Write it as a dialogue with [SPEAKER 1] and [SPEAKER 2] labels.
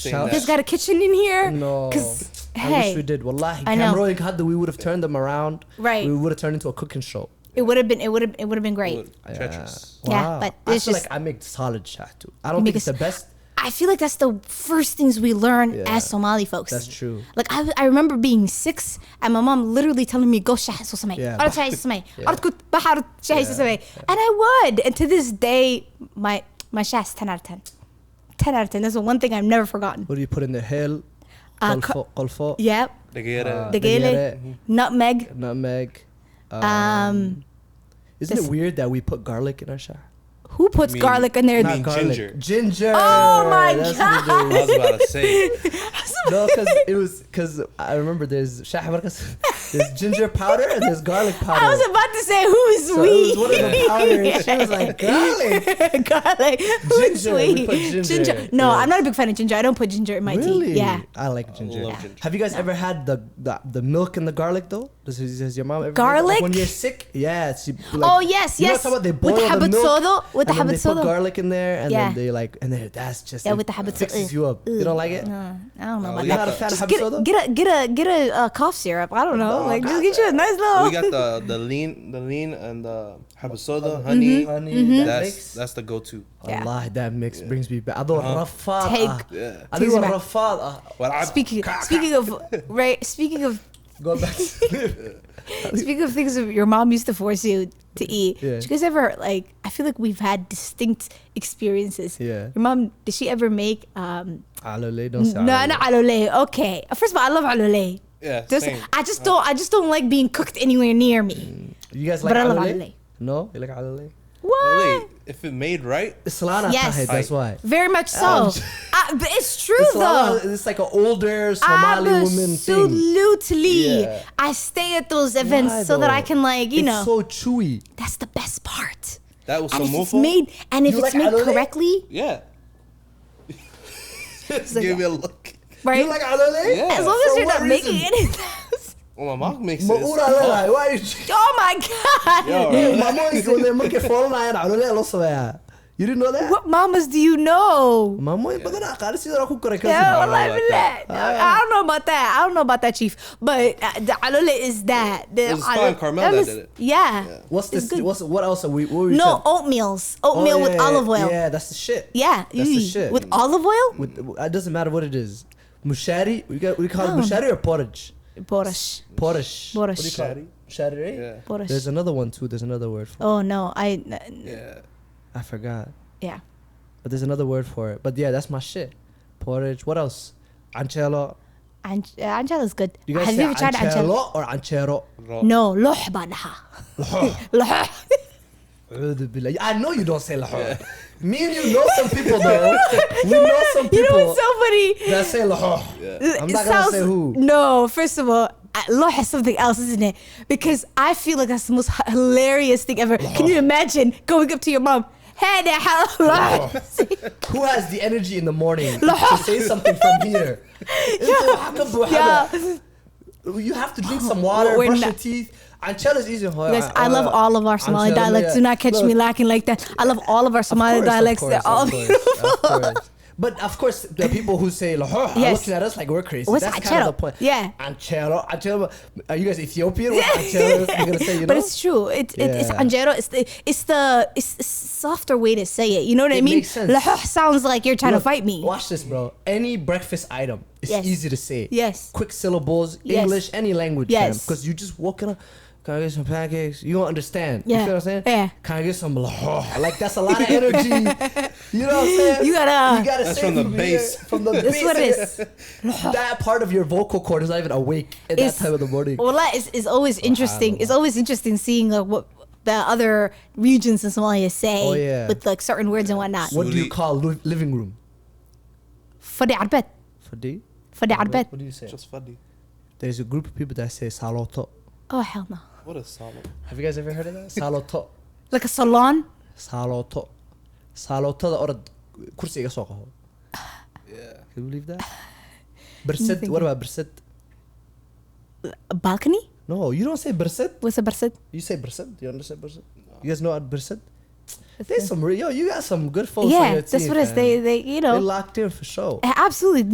[SPEAKER 1] saying
[SPEAKER 2] Shout-
[SPEAKER 1] that.
[SPEAKER 2] Yeah.
[SPEAKER 3] You guys got a kitchen in here?
[SPEAKER 2] No.
[SPEAKER 3] 'Cause,
[SPEAKER 2] I wish
[SPEAKER 3] hey,
[SPEAKER 2] we did. Wallahi,
[SPEAKER 3] I know.
[SPEAKER 2] Camroy had the we would have turned them around.
[SPEAKER 3] Right.
[SPEAKER 2] We would have turned into a cooking show.
[SPEAKER 3] it would have been it would have it would have been great.
[SPEAKER 1] Look, Tetris.
[SPEAKER 3] Yeah, but
[SPEAKER 2] I
[SPEAKER 3] it's
[SPEAKER 2] feel
[SPEAKER 3] just-
[SPEAKER 2] like I make solid shot too. I don't
[SPEAKER 3] You
[SPEAKER 2] think
[SPEAKER 3] make
[SPEAKER 2] it's
[SPEAKER 3] a
[SPEAKER 2] the
[SPEAKER 3] s-
[SPEAKER 2] best.
[SPEAKER 3] I feel like that's the first things we learn
[SPEAKER 2] Yeah.
[SPEAKER 3] as Somali folks.
[SPEAKER 2] That's true.
[SPEAKER 3] Like I, I remember being six and my mom literally telling me go شاهي سو سمي
[SPEAKER 2] Yeah.
[SPEAKER 3] أرد شاهي سو سمي أرد كنت بحر شاهي سو سمي and I would and to this day my my شاه is 10 out of 10 10 out of 10 that's the one thing I've never forgotten
[SPEAKER 2] What do you put in the hill?
[SPEAKER 3] Uh,
[SPEAKER 2] Qalfo,
[SPEAKER 3] co-
[SPEAKER 2] qalfo,
[SPEAKER 3] yep
[SPEAKER 1] Negera.
[SPEAKER 2] Uh,
[SPEAKER 3] دقيلة
[SPEAKER 2] دقيلة.
[SPEAKER 3] nutmeg
[SPEAKER 2] nutmeg. Um,
[SPEAKER 3] um
[SPEAKER 2] isn't
[SPEAKER 3] this-
[SPEAKER 2] it weird that we put garlic in our shot?
[SPEAKER 3] who puts
[SPEAKER 1] mean-
[SPEAKER 3] garlic in their
[SPEAKER 1] I
[SPEAKER 2] Not
[SPEAKER 1] mean
[SPEAKER 2] garlic.
[SPEAKER 1] ginger.
[SPEAKER 2] Ginger.
[SPEAKER 3] Oh my
[SPEAKER 2] That's what we do.
[SPEAKER 1] I was about to say.
[SPEAKER 2] no, because it was because I remember there's shah marcas, there's ginger powder and there's garlic powder.
[SPEAKER 3] I was about to say who's
[SPEAKER 2] so it was one of the powders. She was like, garlic.
[SPEAKER 3] garlic. Who's
[SPEAKER 2] Ginger, we
[SPEAKER 3] we?
[SPEAKER 2] put ginger.
[SPEAKER 3] No,
[SPEAKER 2] Yeah.
[SPEAKER 3] I'm not a big fan of ginger. I don't put ginger in my
[SPEAKER 2] Really?
[SPEAKER 3] tea. Yeah.
[SPEAKER 2] I like ginger.
[SPEAKER 1] love ginger.
[SPEAKER 2] Have you guys ever had the, the the milk and the garlic though? Does, has your mom ever? had that?
[SPEAKER 3] Garlic?
[SPEAKER 2] when you're sick? Yeah. It's, you- like,
[SPEAKER 3] Oh, yes,
[SPEAKER 2] you know
[SPEAKER 3] yes.
[SPEAKER 2] what I'm talking
[SPEAKER 3] With the
[SPEAKER 2] about? They boil the
[SPEAKER 3] habatsudo,
[SPEAKER 2] milk
[SPEAKER 3] with the
[SPEAKER 2] and then they put
[SPEAKER 3] habatsudo.
[SPEAKER 2] garlic in there, and
[SPEAKER 3] Yeah.
[SPEAKER 2] then they like, and then that's just
[SPEAKER 3] Yeah,
[SPEAKER 2] it
[SPEAKER 3] with the habatsudo.
[SPEAKER 2] Fixes
[SPEAKER 3] Ugh.
[SPEAKER 2] you up. You
[SPEAKER 3] Ugh.
[SPEAKER 2] don't like it?
[SPEAKER 3] Uh, I don't know
[SPEAKER 1] Uh,
[SPEAKER 3] about
[SPEAKER 1] we
[SPEAKER 2] Oh, You're not
[SPEAKER 3] that.
[SPEAKER 1] got
[SPEAKER 2] a
[SPEAKER 1] the-
[SPEAKER 2] fan of Oh,
[SPEAKER 3] Just get a,
[SPEAKER 2] habatsudo?
[SPEAKER 3] get a get a get a uh, cough syrup. I don't know.
[SPEAKER 2] No,
[SPEAKER 3] like
[SPEAKER 2] not
[SPEAKER 3] just get you a nice little.
[SPEAKER 1] We got the the lean, the lean, and the habasoda, honey.
[SPEAKER 2] Mm-hmm. Honey,
[SPEAKER 3] Mm-hmm.
[SPEAKER 2] that
[SPEAKER 1] That's
[SPEAKER 2] mix.
[SPEAKER 1] that's the go-to.
[SPEAKER 3] Yeah.
[SPEAKER 2] Allah, that mix brings me back. Ah. أدور رفاضة.
[SPEAKER 3] Take-
[SPEAKER 1] Uh-huh. Yeah.
[SPEAKER 2] أدور
[SPEAKER 3] Take-
[SPEAKER 2] رفاضة.
[SPEAKER 1] والعب.
[SPEAKER 3] speaking speaking of right speaking of
[SPEAKER 2] Go back to sleep.
[SPEAKER 3] speaking of things that your mom used to force you to eat.
[SPEAKER 2] Yeah.
[SPEAKER 3] Did you guys ever like? I feel like we've had distinct experiences.
[SPEAKER 2] Yeah.
[SPEAKER 3] Your mom did she ever make um?
[SPEAKER 2] علولي don't say
[SPEAKER 3] No,
[SPEAKER 2] علولي.
[SPEAKER 3] not alole. Okay. First of all, I love alole.
[SPEAKER 1] Yeah,
[SPEAKER 3] Just,
[SPEAKER 1] same.
[SPEAKER 3] I just don't. I just don't like being cooked anywhere near me.
[SPEAKER 2] You guys like
[SPEAKER 3] But I love
[SPEAKER 2] علولي?
[SPEAKER 3] علولي.
[SPEAKER 2] No, you like علولي?
[SPEAKER 3] What?
[SPEAKER 1] Wait, if it made right,
[SPEAKER 2] It's Solana
[SPEAKER 3] Yes.
[SPEAKER 2] Tahid, that's why.
[SPEAKER 3] Very much so. I, but it's true
[SPEAKER 2] Oh, It's,
[SPEAKER 3] though.
[SPEAKER 2] Solana, it's like an older Somali woman thing.
[SPEAKER 3] Absolutely.
[SPEAKER 2] Yeah.
[SPEAKER 3] I stay at those events
[SPEAKER 2] Why
[SPEAKER 3] so that
[SPEAKER 2] though?
[SPEAKER 3] I can like you
[SPEAKER 2] it's
[SPEAKER 3] know.
[SPEAKER 2] so chewy.
[SPEAKER 3] that's the best part.
[SPEAKER 1] that was
[SPEAKER 3] And if it's
[SPEAKER 1] samofo.
[SPEAKER 3] made and if
[SPEAKER 2] You
[SPEAKER 3] it's
[SPEAKER 2] like
[SPEAKER 3] made
[SPEAKER 2] alole?
[SPEAKER 3] correctly,
[SPEAKER 1] Yeah. Just give me a look.
[SPEAKER 3] right?
[SPEAKER 2] You like علولي?
[SPEAKER 1] Yeah.
[SPEAKER 3] As long
[SPEAKER 2] For
[SPEAKER 3] as you're
[SPEAKER 2] what
[SPEAKER 3] not making
[SPEAKER 2] reason?
[SPEAKER 3] it in the house.
[SPEAKER 1] Well, my mom makes it.
[SPEAKER 2] مقول
[SPEAKER 1] It's tough.
[SPEAKER 2] علولي. Why you
[SPEAKER 3] Oh my god.
[SPEAKER 1] Yo,
[SPEAKER 2] My mom is going there making foreign iron علولي also, yeah. You didn't know that?
[SPEAKER 3] What mamas do you know?
[SPEAKER 2] My mom is going to قال سيدي راكو كوريكاسي.
[SPEAKER 3] Yeah,
[SPEAKER 1] I don't know
[SPEAKER 3] wallahi
[SPEAKER 1] about that.
[SPEAKER 3] billah. I don't know about that. I don't know about that, Chief. But uh, the alole is that. The
[SPEAKER 1] It was fine.
[SPEAKER 3] alole-
[SPEAKER 1] Carmel
[SPEAKER 3] that
[SPEAKER 1] that
[SPEAKER 3] was-
[SPEAKER 1] did it.
[SPEAKER 3] Yeah.
[SPEAKER 2] What's
[SPEAKER 3] It's
[SPEAKER 2] this?
[SPEAKER 3] good.
[SPEAKER 2] What's, what else are we? What were we
[SPEAKER 3] no,
[SPEAKER 2] saying?
[SPEAKER 3] oatmeals.
[SPEAKER 2] Oh,
[SPEAKER 3] Oatmeal
[SPEAKER 2] yeah,
[SPEAKER 3] with
[SPEAKER 2] yeah,
[SPEAKER 3] olive oil. Yeah.
[SPEAKER 2] Yeah, that's the shit.
[SPEAKER 3] That's
[SPEAKER 2] That's the shit.
[SPEAKER 3] With olive oil?
[SPEAKER 2] With uh, it doesn't matter what it is. Mushari, we got we call it mushari or porridge.
[SPEAKER 3] Borash.
[SPEAKER 2] Porish.
[SPEAKER 3] Borish.
[SPEAKER 2] What do you call it? Mushari, right?
[SPEAKER 1] Yeah.
[SPEAKER 3] Borish.
[SPEAKER 2] There's another one too. There's another word for.
[SPEAKER 3] Oh no, I n-
[SPEAKER 1] Yeah.
[SPEAKER 2] it. I forgot.
[SPEAKER 3] yeah.
[SPEAKER 2] But there's another word for it. But yeah, that's my shit. Porridge. What else? Ancelo.
[SPEAKER 3] An- uh, Angela is good.
[SPEAKER 2] You guys
[SPEAKER 3] Have
[SPEAKER 2] say
[SPEAKER 3] you ever tried Angela?
[SPEAKER 2] ancelo or ancero?
[SPEAKER 1] Raw.
[SPEAKER 3] No, لحبنها. لح.
[SPEAKER 2] A'udhu billah. I know you don't say lahore. Me and you know some people though. we know some
[SPEAKER 3] You know
[SPEAKER 2] people
[SPEAKER 3] what's so funny?
[SPEAKER 2] that say lahore. I'm
[SPEAKER 3] It
[SPEAKER 2] not gonna say who.
[SPEAKER 3] No, first of all, uh, loh is something else, isn't it? Because I feel like that's the most h- hilarious thing ever. Can you imagine going up to your mom? Hey, there, how loh.
[SPEAKER 2] Who has the energy in the morning
[SPEAKER 3] Lahore.
[SPEAKER 2] to say something from here? Into Hakab Buhada.
[SPEAKER 3] Yeah.
[SPEAKER 2] You have to drink some water,
[SPEAKER 3] We're
[SPEAKER 2] brush
[SPEAKER 3] not-
[SPEAKER 2] your teeth. Ancel is easy.
[SPEAKER 3] Guys, I love
[SPEAKER 2] Uh,
[SPEAKER 3] all of our Somali dialects. Do not catch me lacking like that. I love all of our Somali dialects. They're all beautiful.
[SPEAKER 2] But of course, the people who say Lahore are
[SPEAKER 3] Yes.
[SPEAKER 2] looking at us like we're crazy.
[SPEAKER 3] What's
[SPEAKER 2] That's kind
[SPEAKER 3] Anchelo?
[SPEAKER 2] of the point.
[SPEAKER 3] Yeah.
[SPEAKER 2] Anchelo, Anchelo. Are you guys Ethiopian? What's Anchelo? You're gonna say, you know?
[SPEAKER 3] But it's true. It, it, It's
[SPEAKER 2] Yeah.
[SPEAKER 3] anjero. It's the it's the it's a softer way to say it. You know what
[SPEAKER 2] It
[SPEAKER 3] I mean?
[SPEAKER 2] makes sense.
[SPEAKER 3] Lahoh sounds like you're trying
[SPEAKER 2] Look,
[SPEAKER 3] to fight me.
[SPEAKER 2] Watch this, bro. Any breakfast item is
[SPEAKER 3] Yes.
[SPEAKER 2] easy to say.
[SPEAKER 3] Yes.
[SPEAKER 2] Quick syllables,
[SPEAKER 3] Yes.
[SPEAKER 2] English, any language.
[SPEAKER 3] Yes.
[SPEAKER 2] Because you just walking up. Can I get some pancakes? You don't understand.
[SPEAKER 3] Yeah.
[SPEAKER 2] You feel what I'm saying?
[SPEAKER 3] Yeah.
[SPEAKER 2] Can I get some Like that's a lot of energy. you know what I'm saying?
[SPEAKER 3] You gotta-
[SPEAKER 2] You gotta
[SPEAKER 1] That's
[SPEAKER 2] say
[SPEAKER 1] from the
[SPEAKER 2] here-
[SPEAKER 1] base.
[SPEAKER 2] From the
[SPEAKER 3] That's
[SPEAKER 2] base.
[SPEAKER 3] what it is.
[SPEAKER 2] that part of your vocal cord is not even awake at
[SPEAKER 3] It's-
[SPEAKER 2] that time of the morning.
[SPEAKER 3] Well, that is, is always interesting. It's always interesting seeing like what the other regions in Somalia say
[SPEAKER 2] Oh, yeah.
[SPEAKER 3] with like certain words and whatnot.
[SPEAKER 2] What do you
[SPEAKER 1] Suli-
[SPEAKER 2] call lu- living room?
[SPEAKER 3] فدي عربت
[SPEAKER 2] For D?
[SPEAKER 3] فدي عربت.
[SPEAKER 2] What do you say?
[SPEAKER 1] Just funny.
[SPEAKER 2] There's a group of people that say saloto.
[SPEAKER 3] Oh hell no!
[SPEAKER 1] What a solid.
[SPEAKER 2] Have you guys ever heard of that? Saloto.
[SPEAKER 3] Like a salon.
[SPEAKER 2] saalooto saalootada orod kursi iga soo qaho Can you believe that? Bersed, what about bersed?
[SPEAKER 3] A balcony.
[SPEAKER 2] No, you don't say bersed.
[SPEAKER 3] What's a person?
[SPEAKER 2] You say bersed. You understand bersed? You guys know what bersed? There's some real. Yo, you got some good folks on
[SPEAKER 3] Yeah,
[SPEAKER 2] your
[SPEAKER 3] that's
[SPEAKER 2] team,
[SPEAKER 3] what it is.
[SPEAKER 2] man.
[SPEAKER 3] They they you know
[SPEAKER 2] They locked in for sure.
[SPEAKER 3] absolutely